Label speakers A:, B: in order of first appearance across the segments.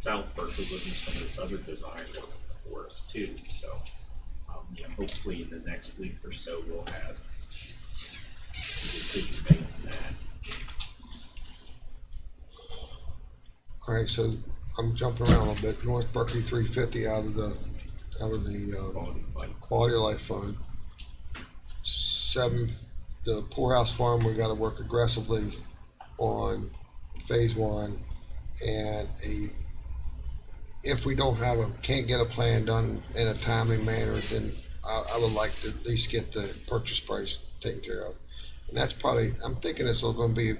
A: South Berkeley would do some of this other design work for us too, so, um, you know, hopefully in the next week or so, we'll have a decision made on that.
B: All right, so I'm jumping around a little bit. North Berkeley three fifty out of the, out of the, um,
A: Quality fund.
B: Quality of Life Fund. Seven, the Poorhouse Farm, we gotta work aggressively on phase one. And a, if we don't have a, can't get a plan done in a timely manner, then I, I would like to at least get the purchase price taken care of. And that's probably, I'm thinking it's all gonna be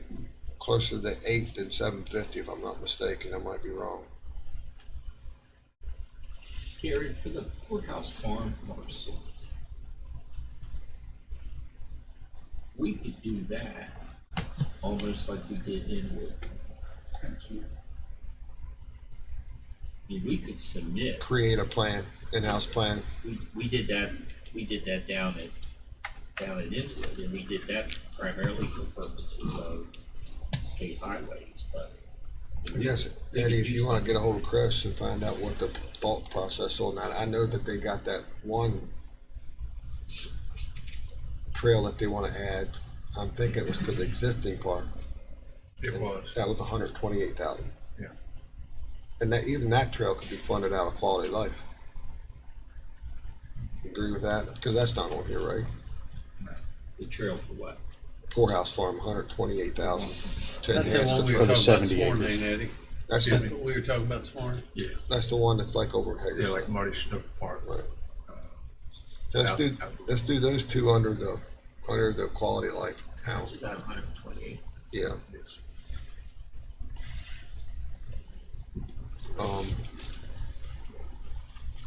B: closer to eight than seven fifty, if I'm not mistaken. I might be wrong.
A: Gary, for the courthouse farm parcel, we could do that almost like we did Inwood. I mean, we could submit,
B: Create a plan, in-house plan.
A: we, we did that, we did that down at, down at Inwood, and we did that primarily for purposes of state highways, but.
B: Yes,
A: We could
B: Eddie, if
A: do
B: you wanna get a hold of Chris and find out what the thought process on that, I know that they got that one trail that they wanna add. I'm thinking it was to the existing park.
C: It was.
B: That was hundred twenty-eight thousand.
C: Yeah.
B: And that, even that trail could be funded out of quality of life. Agree with that? Cause that's not on here, right?
A: The trail for what?
B: Poorhouse Farm, hundred twenty-eight thousand.
D: That's the one we were
E: For the
D: talking
E: 70
D: about this morning,
E: acres.
D: ain't Eddie?
B: That's
D: Excuse me,
B: the,
D: we were talking about this morning?
C: Yeah,
B: that's the one that's like over at Hager's.
C: yeah, like Marty Snook Park.
B: Right. So Let's do, let's do those two under the, under the quality of life
A: Is
B: houses,
A: that hundred and twenty-eight?
B: yeah.
C: Yes.
B: Um,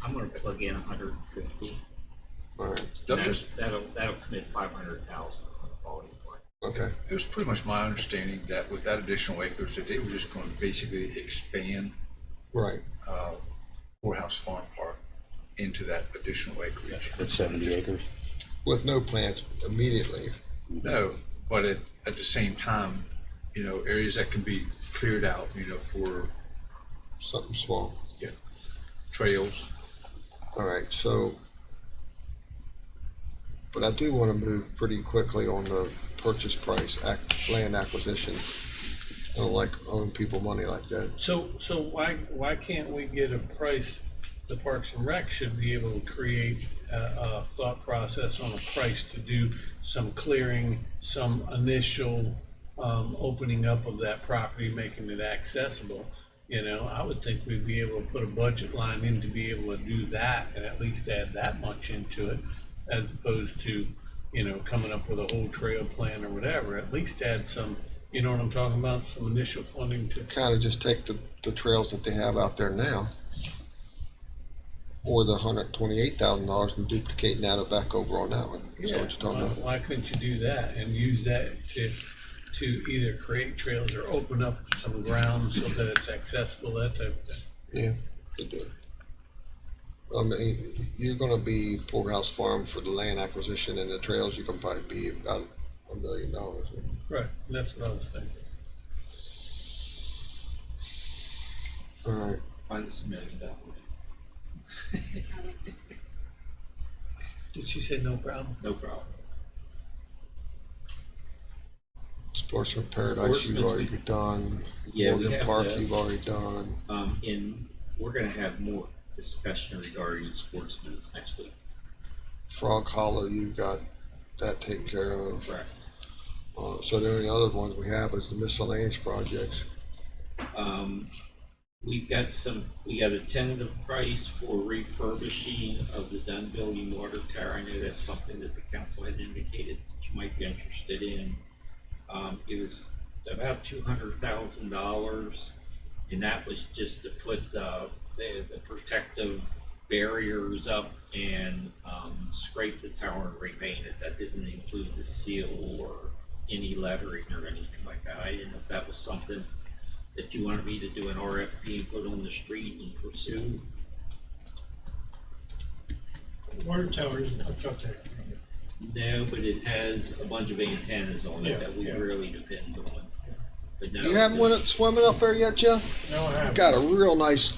A: I'm gonna plug in hundred and fifty.
B: all right,
C: That
A: That-
C: was-
A: That'll, that'll commit five hundred thousand on the quality of life.
B: okay,
C: It was pretty much my understanding that with that additional acres, that they were just going to basically expand
B: right,
C: uh, Morehouse Farm Park into that additional acreage.
E: It's seventy acres.
B: with no plans immediately,
C: No, but at, at the same time, you know, areas that can be cleared out, you know, for
B: something small.
C: you know, trails.
B: All right, so, but I do want to move pretty quickly on the purchase price, ac land acquisition. I don't like owing people money like that.
D: So, so why, why can't we get a price, the Parks and Rec should be able to create a, a thought process on a price to do some clearing, some initial, um, opening up of that property, making it accessible. You know, I would think we'd be able to put a budget line in to be able to do that and at least add that much into it as opposed to, you know, coming up with a whole trail plan or whatever, at least add some, you know what I'm talking about, some initial funding to
B: kind of just take the, the trails that they have out there now, or the hundred twenty-eight thousand dollars and duplicating that or back over on that one. Is that
D: Yeah,
B: what you're talking
D: why,
B: about?
D: why couldn't you do that and use that to, to either create trails or open up some ground so that it's accessible, that type of thing?
B: Yeah. could do it. I mean, you're gonna be Poorhouse Farm for the land acquisition and the trails, you can probably be about a million dollars.
D: Right, that's what I was thinking.
B: All right,
A: Find us a million dollars.
D: Did she say no problem?
A: No problem.
B: Sportsman Paradise,
A: Sportsman's
B: you've already
A: we-
B: done.
A: Yeah, we
B: Morgan
A: have
B: Park,
A: that.
B: you've already done.
A: Um, and we're gonna have more discussion regarding sportsmen's next week.
B: Frog Hollow, you've got that taken care of.
A: Correct.
B: Uh, so the only other ones we have is the miscellaneous projects.
A: Um, we've got some, we got a tentative price for refurbishing of the Dunn Building water tower. I know that's something that the council had indicated that you might be interested in. Um, it was about two hundred thousand dollars, and that was just to put the, the, the protective barriers up and, um, scrape the tower and repaint it. That didn't include the seal or any lettering or anything like that. I didn't know if that was something that you wanted me to do an RFP and put on the street and pursue.
F: Water towers, I've got that.
A: No, but it has a bunch of antennas on it
F: Yeah,
A: that we
F: yeah.
A: really depend on. But no,
B: You haven't
A: there's-
B: went up swimming up there yet, Jeff?
F: No, I haven't.
B: Got a real nice